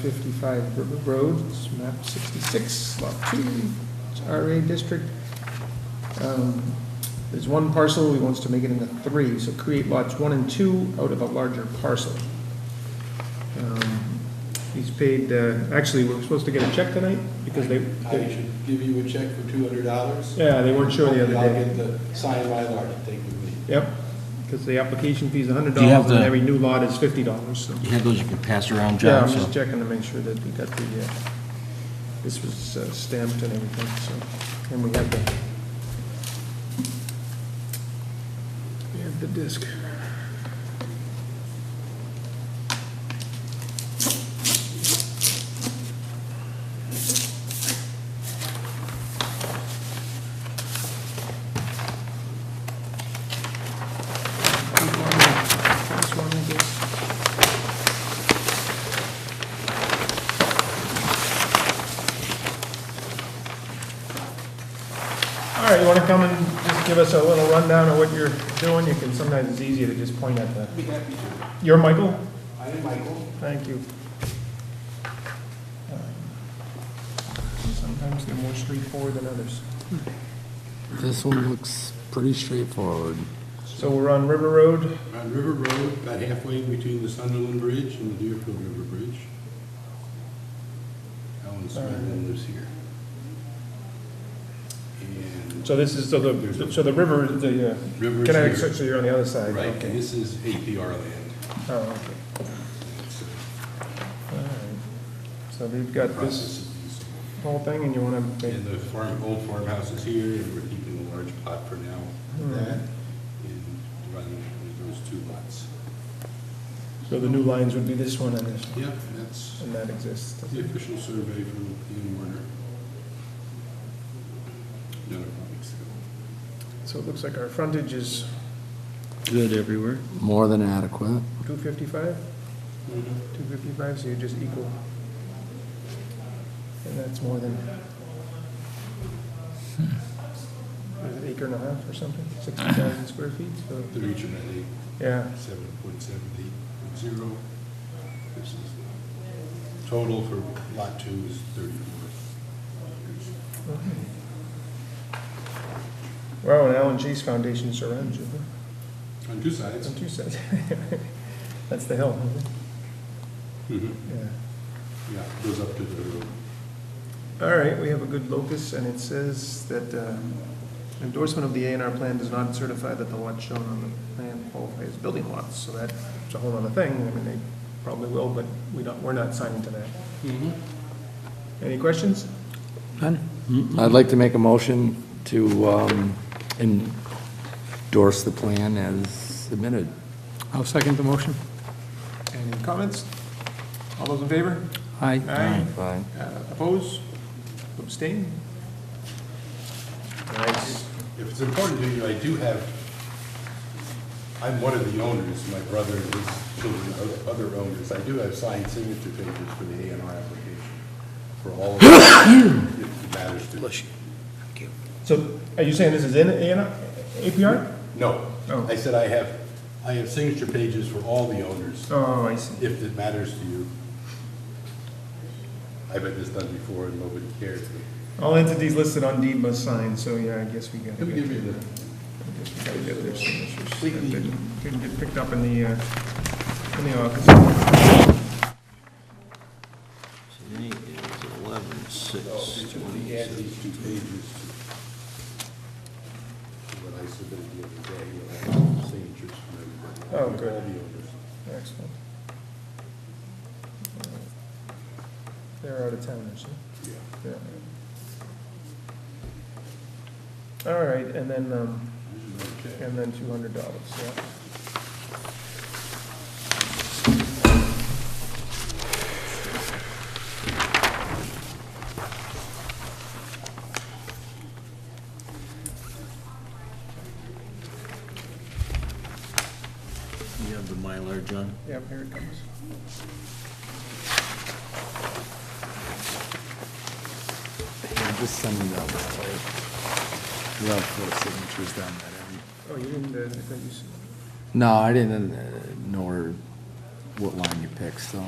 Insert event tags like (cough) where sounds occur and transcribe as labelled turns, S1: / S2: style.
S1: 555 River Road, it's map 66, lot 2, it's RA district. Um, There's one parcel, he wants to make it into three, so create lots 1 and 2 out of a larger parcel. Um, He's paid, uh, actually, we're supposed to get a check tonight because they,
S2: I
S1: they-
S2: should give you a check for two hundred dollars.
S1: yeah, they weren't sure the other
S2: I'll
S1: day.
S2: get the signed Mylar to take with me.
S1: Yep, because the application fee's $100
S3: Do you have
S1: and
S3: the-
S1: every new lot is $50, so.
S3: You had those you could pass around,
S1: Yeah,
S3: John,
S1: I'm
S3: so.
S1: just checking to make sure that we got the, uh, this was uh, stamped and everything, so, and we have the, we have the disc. This one, I guess. All right, you want to come and just give us a little rundown of what you're doing? You can, sometimes it's easier to just point at the,
S2: I'd be happy to.
S1: you're Michael?
S2: I am Michael.
S1: Thank you. Sometimes they're more straightforward than others.
S4: This one looks pretty straightforward.
S1: So we're on River Road,
S2: We're On River Road, about halfway between the Sunderland Bridge and the Deerfield River Bridge. Alan Smithman lives here. And
S1: so this is, so the, so the river, is the uh,
S2: River
S1: Connecticut,
S2: is
S1: so
S2: here.
S1: you're on the other side?
S2: Right, and
S1: Okay.
S2: this is APR land.
S1: Oh, okay.
S2: It's
S1: All right. So we've
S2: a
S1: got this
S2: process of these.
S1: whole thing and you want to,
S2: And the farm, old farmhouse is here, and we're keeping a large plot for now.
S1: Hmm.
S2: That And running those two lots.
S1: so the new lines would be this one and this, one,
S2: Yep, that's
S1: and that exists.
S2: the official survey from Ian Warner. Another public sale.
S1: So it looks like our frontage is
S3: Good everywhere.
S4: More than adequate.
S1: 255? 255, so you're just equal. And that's more than, hmm, what is it, acre and a half or something? 60,000 square feet, so,
S2: The region at eight,
S1: yeah.
S2: seven point seven eight point zero. This is, total for lot two is thirty-four.
S1: Wow, and Alan Chase Foundation surrounds you, huh?
S2: On two sides.
S1: on two sides. (laughs) That's the hill, isn't it?
S2: Mhm.
S1: Yeah.
S2: Yeah, goes up to the road.
S1: All right, we have a good locus, and it says that um, endorsement of the A and R plan does not certify that the lots shown on the plan qualify as building lots, so that's a whole other thing, I mean, they probably will, but we don't, we're not signing to that. Any questions?
S4: I'd like to make a motion to um, endorse the plan as submitted.
S5: I'll second the motion.
S1: Any comments? All those in favor?
S5: Aye.
S1: Aye.
S4: Fine.
S1: Uh, Oppose? Abstain? Nice.
S2: If it's important to you, I do have, I'm one of the owners, my brother and his children are other owners. I do have signed signature papers for the A and R application for all of them, (coughs) if it matters to you.
S1: So are you saying this is in A and R, APR?
S2: No,
S1: Oh.
S2: I said I have, I have signature pages for all the owners,
S1: Oh, I see.
S2: if it matters to you. I've had this done before and nobody cared.
S1: All entities listed on deed must sign, so yeah, I guess we got.
S2: Let me give you the,
S1: Gotta get their signatures.
S2: Completely.
S1: Didn't- Didn't get picked up in the, uh, in the office.
S3: Today is eleven
S2: oh,
S3: six
S2: let me add these two pages to what I submitted the other day, when I had signatures from everybody.
S1: Oh, good.
S2: All the owners.
S1: Excellent. They're out of town, actually.
S2: Yeah.
S1: Yeah. All right, and then, um,
S2: Okay.
S1: and then two hundred dollars, yeah.
S3: You have the Mylar, John?
S1: Yep, here it comes.
S4: Just send me that. You'll have four signatures down there.
S1: Oh, you didn't, uh, I thought you said.
S4: No, I didn't uh, know where- what line you picked, so.